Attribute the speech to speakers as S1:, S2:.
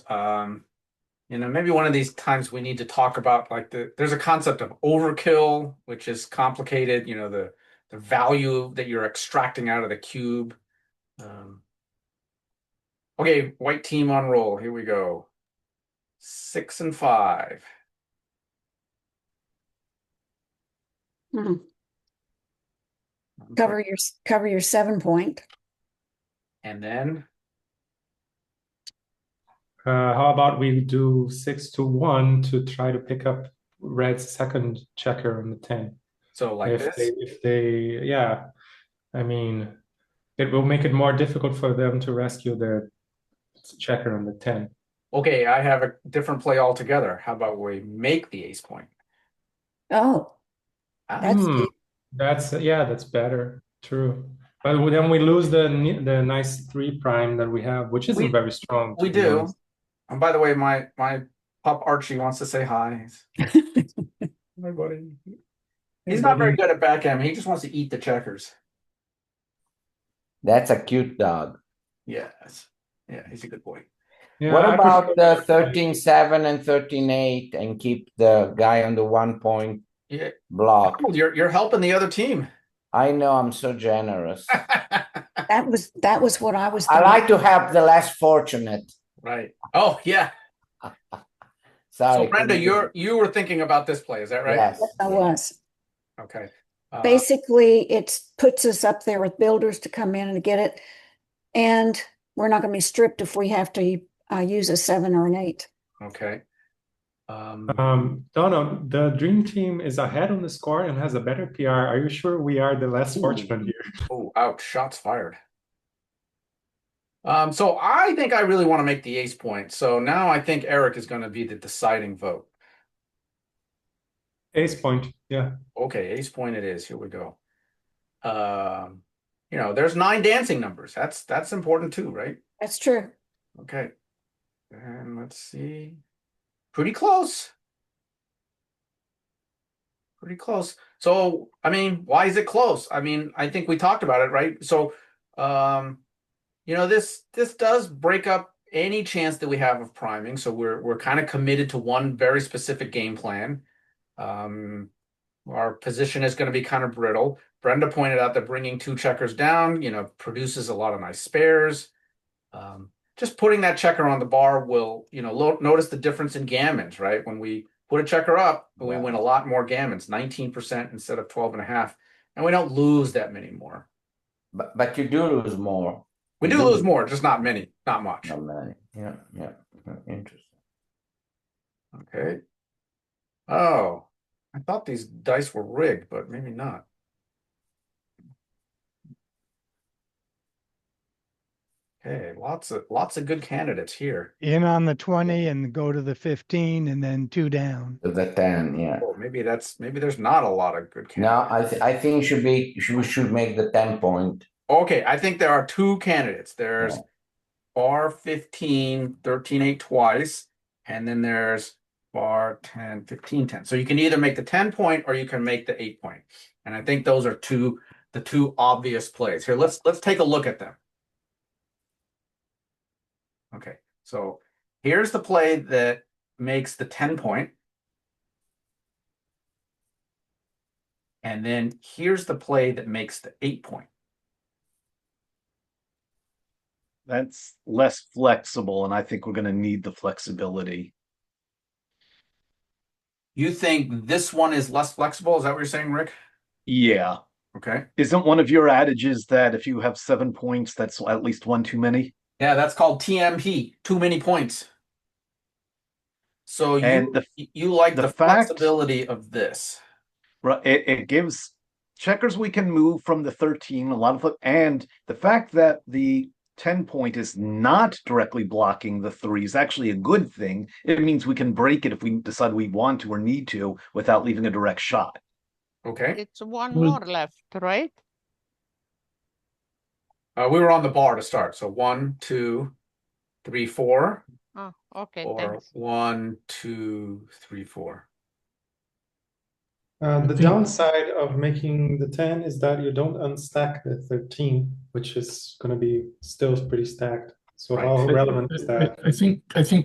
S1: Um, you know, maybe one of these times we need to talk about like the, there's a concept of overkill, which is complicated, you know, the, the value that you're extracting out of the cube. Um, okay, white team on roll. Here we go. Six and five.
S2: Hmm. Cover your, s- cover your seven point.
S1: And then,
S3: Uh, how about we do six to one to try to pick up red's second checker on the 10
S1: so like
S3: if
S1: this.
S3: they if they yeah i mean it will make it more difficult for them to rescue their checker on the 10
S1: Okay, I have a different play altogether. How about we make the ace point?
S2: Oh,
S1: Ah,
S2: that's,
S3: Hmm.
S2: the-
S3: that's yeah that's better true but then we lose the ni- the nice three prime that we have which isn't
S1: We-
S3: very strong to
S1: we
S3: be
S1: do.
S3: honest.
S1: And by the way, my, my pup Archie wants to say hi. Hi, buddy. He's not very good at backgammon. He just wants to eat the checkers.
S4: That's a cute dog.
S1: Yes. Yeah, he's a good boy.
S3: Yeah,
S4: what
S3: I
S4: about
S3: prefer-
S4: the 13 7 and 13 8 and keep the guy on the one point
S1: Yeah.
S4: block?
S1: Oh, You're you're helping the other team.
S4: I know I'm so generous.
S2: that was, that was what I was.
S4: I
S2: thinking.
S4: like to help the less fortunate.
S1: right. Oh yeah.
S4: Sorry,
S1: So Brenda,
S4: couldn't-
S1: you're you were thinking about this play, is that right?
S4: Yes.
S2: Yes, I was.
S1: Okay. Uh,
S2: Basically, it puts us up there with builders to come in and get it. And we're not going to be stripped if we have to uh, use a seven or an eight.
S1: okay. Um,
S3: Um, Donna, the dream team is ahead on the score and has a better PR. Are you sure we are the less fortunate here?
S1: oh, ouch! Shots fired. Um, so I think I really want to make the ace point. So now I think Eric is going to be the deciding vote.
S3: Ace point, yeah.
S1: Okay, ace point it is. Here we go. Um, you know, there's nine dancing numbers. That's that's important too, right?
S2: That's true.
S1: Okay. And let's see. Pretty close. Pretty close. So, I mean, why is it close? I mean, I think we talked about it, right? So, um, you know, this this does break up any chance that we have of priming. So we're we're kind of committed to one very specific game plan. Um, our position is going to be kind of brittle. Brenda pointed out that bringing two checkers down, you know, produces a lot of nice spares. Um, just putting that checker on the bar will, you know, lo- notice the difference in gammons, right? When we put a checker up, we
S4: Yeah.
S1: win a lot more gammons, 19% instead of 12 and a half. And we don't lose that many more.
S4: But, but you do lose more.
S1: We
S4: You
S1: do
S4: do.
S1: lose more, just not many, not much.
S4: Not many. Yeah, yeah. yeah, Interesting.
S1: Okay. Oh, I thought these dice were rigged, but maybe not. Okay, lots of lots of good candidates here.
S5: in on the 20 and go to the 15 and then two down.
S4: To the 10, yeah.
S1: Oh, maybe that's maybe there's not a lot of good candidates.
S4: No, I, th- I think should be should, we should make the 10 point.
S1: Okay, I think there are two candidates. There's
S4: Yeah.
S1: bar 15, 13, 8 twice, and then there's bar 10, 15, 10. So you can either make the 10 point or you can make the 8 point. And I think those are two the two obvious plays. Here, let's let's take a look at them. Okay. So here's the play that makes the 10 point. And then here's the play that makes the 8 point.
S6: That's less flexible, and I think we're gonna need the flexibility.
S1: You think this one is less flexible? Is that what you're saying, Rick?
S6: Yeah.
S1: Okay.
S6: Isn't one of your adages that if you have seven points, that's at least one too many?
S1: Yeah, that's called TMP, too many points. So you
S6: And the-
S1: you like the,
S6: the fact-
S1: flexibility of this.
S6: Right. It, it gives checkers we can move from the 13, a lot of, fle- and the fact that the 10 point is not directly blocking the three is actually a good thing. It means we can break it if we decide we want to or need to without leaving a direct shot.
S1: Okay.
S7: It's one
S3: Well-
S7: more left, right?
S1: Uh, we were on the bar to start. So one, two, three, four,
S7: Oh, okay,
S1: or
S7: thanks.
S1: one, two, three, four.
S3: Uh, the
S5: Thirteen.
S3: downside of making the 10 is that you don't unstack the 13, which is going to be still pretty stacked. So,
S1: Right.
S3: how
S5: I-
S3: relevant is
S5: I-
S3: that?
S5: I think, I think